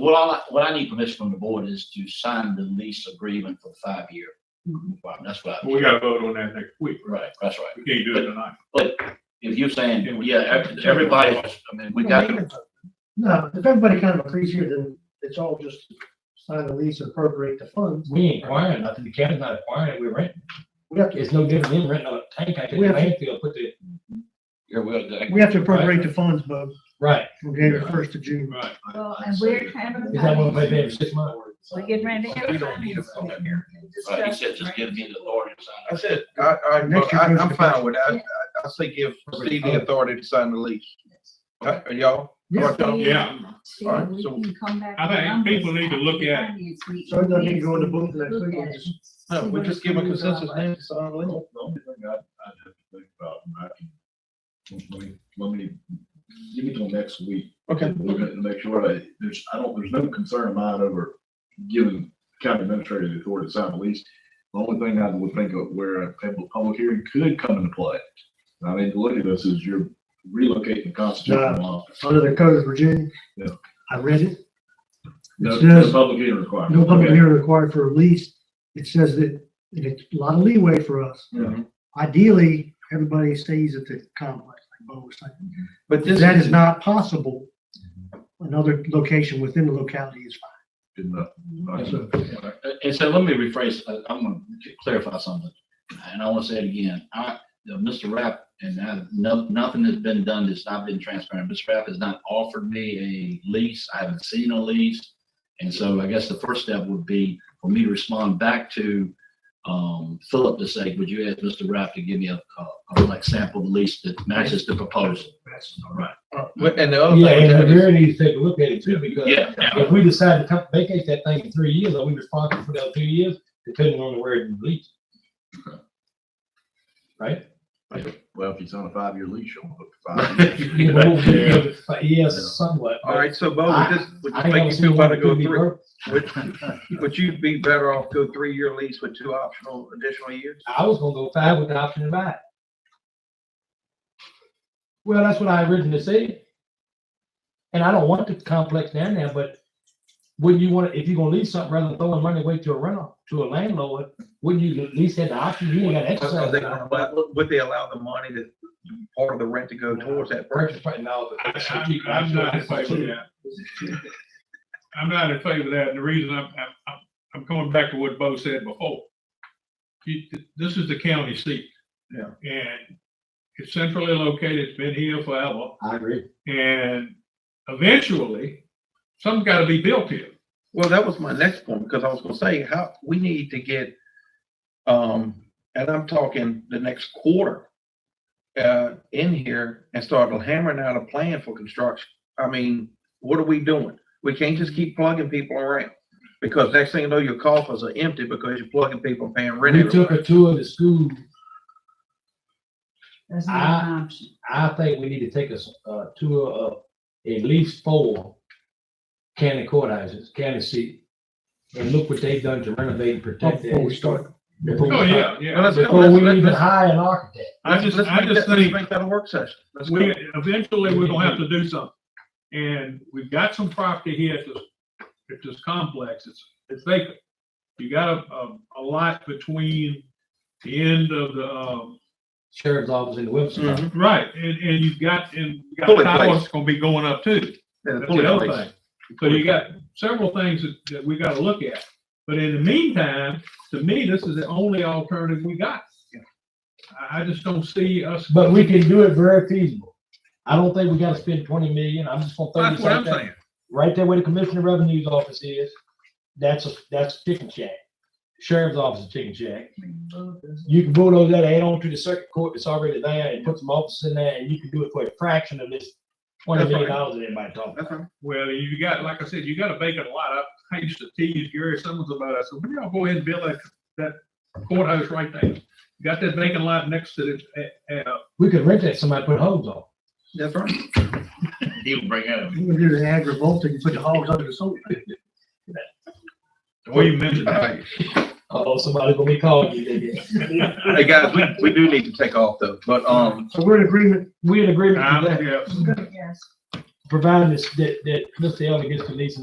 what I, like- what I need permission from the board is to sign the lease agreement for the five-year. Mm-hmm. requirement. That's what I, We gotta vote on that next week. right, that's right. We can't do it tonight. If you're saying, yeah, ev- everybody, I mean, we got, to- No, if everybody kind of agrees here, then it's all just sign the lease, appropriate the funds. We ain't acquiring nothing, the county's not acquiring, it, we're renting. We have to, It's no different than renting a tank out at the We have- landfill, put the, yeah, we'll, we have to appropriate the funds, Bob, right, from January first to June. Right. Well, and we're is that what we pay advertising, every six months? we're getting ready to. We don't need a vote up here. right, Uh, he said, just give me the authority to sign. I said, I, I, Next year I- comes I'm the fine with that. I, I say give Steve the authority to sign the lease. Uh, Are y'all? Yeah, Yeah. See, All right, we so- can come back. I think around people this need to look at finance meeting. So it doesn't need to go in the book next Look week, at we'll it. just- No, See we what just the give a rules are consensus like. name to sign the lease. Well, The only thing I, I have to think about, and I can, let me, let me, give me till next week. Okay. Look at, it and make sure that, there's, I don't, there's no concern of mine over giving county administrator the authority to sign a lease. The only thing I would think of where a public, public hearing could come into play, and I mean, the look at this is you're relocating the constitutional law. under the code of Virginia. Yeah. I read it. No, It no says- public hearing requirement. No public Okay. hearing required for a lease. It says that, and it's a lot of leeway for us. Mhm. Ideally, everybody stays at the complex, like Bo was saying. But If this that is, is not possible, another location within the locality is Good enough. fine. So And so let me rephrase, uh, I'm gonna clarify something, and I wanna say it again. I, uh, Mr. Rapp, and I, no, nothing has been done that's not been transparent. Mr. Rapp has not offered me a lease. I haven't seen a lease. And so I guess the first step would be for me to respond back to, um, Philip to say, would you ask Mr. Rapp to give me a, a, a, like sample lease that matches the proposal? that's- All right. and the other Yeah, and thing, we that is- really need to take a look at it too, because Yeah, yeah. if we decide to come vacate that thing in three years, are we responsible for that two years, depending on where it leaks? Right? Well, if you sign a five-year lease, you'll look for five years. Yeah. Yes, somewhat. all right, so Bo, would this, would I you don't make you see feel why better it go couldn't be three? broke. Would, would you be better off go three-year lease with two optional additional years? I was gonna go five with the option to buy. Well, that's what I originally said. And I don't want the complex down there, but wouldn't you want, if you're gonna lease something rather than throwing money away to a rental, to a landlord, wouldn't you at least have the option, you ain't gotta Are exercise. they that gonna option. allow- Would they allow the money that, part of the rent to go towards that purchase? Purchase price, no, I- but. I'm, I'm not in favor of that. I'm not in favor of that. And the reason I'm, I'm- I'm, I'm going back to what Bo said before. You- This is the county seat. Yeah. And it's centrally located. It's been here forever. I agree. And eventually, something's gotta be built here. Well, that was my next point, because I was gonna say, how, we need to get, um, and I'm talking the next quarter. Uh, in here and start hammering out a plan for construction. I mean, what are we doing? We can't just keep plugging people around. Because next thing you know, your coffers are empty because you're plugging people and paying rent. We took everywhere. a tour of the school, That's not Ah. an option. I think we need to take a, s- a tour of at least four county courthouses, county seat. And look what they've done to renovate and protect that. Before we start. Before we Oh, start- yeah, Well, yeah. let's go, Before let's- we let's- even let's- hire an architect. I just, let's I make just that- let's think Make that a work session. Let's go. we, eventually, we're gonna have to do something. And we've got some property here at this, at this complex. It's, it's vacant. You got a, a, a lot between the end of the, um, Sheriff's office in the website. Mhm. right, and, and you've got, and you got Fully towers placed. that's gonna be going up too. Yeah, That's fully the other placed. thing. So you got several things that, that we gotta look at, but in the meantime, to me, this is the only alternative we got. I, I just don't see us. But we can do it very feasible. I don't think we gotta spend twenty million. I'm just gonna throw That's this what out I'm there. saying. Right there where the Commissioner of Revenue's office is, that's a, that's chicken shack. Sheriff's office is chicken shack. You can bulldoze that, add on to the circuit court that's already there and put some offices in there and you can do it for a fraction of this twenty That's right. million dollars that everybody talking. That's about. right. Well, you got, like I said, you got a vacant lot. I- I used to tease Gary Simmons about it. I said, when y'all go ahead and build that, that courthouse right there? You got that vacant lot next to the, uh, uh, We could rent that, somebody put hose on. That's right. He'll bring it up. You can do the ag revolt and put the hogs under the soil. well, you mentioned that. Oh, somebody gonna be calling you. they get- Hey, guys, we, we do need to take off though, but, um, So we're in agreement. We in agreement with Um, yeah. that, Yes. providing this, that, that Mr. Elder gets the lease and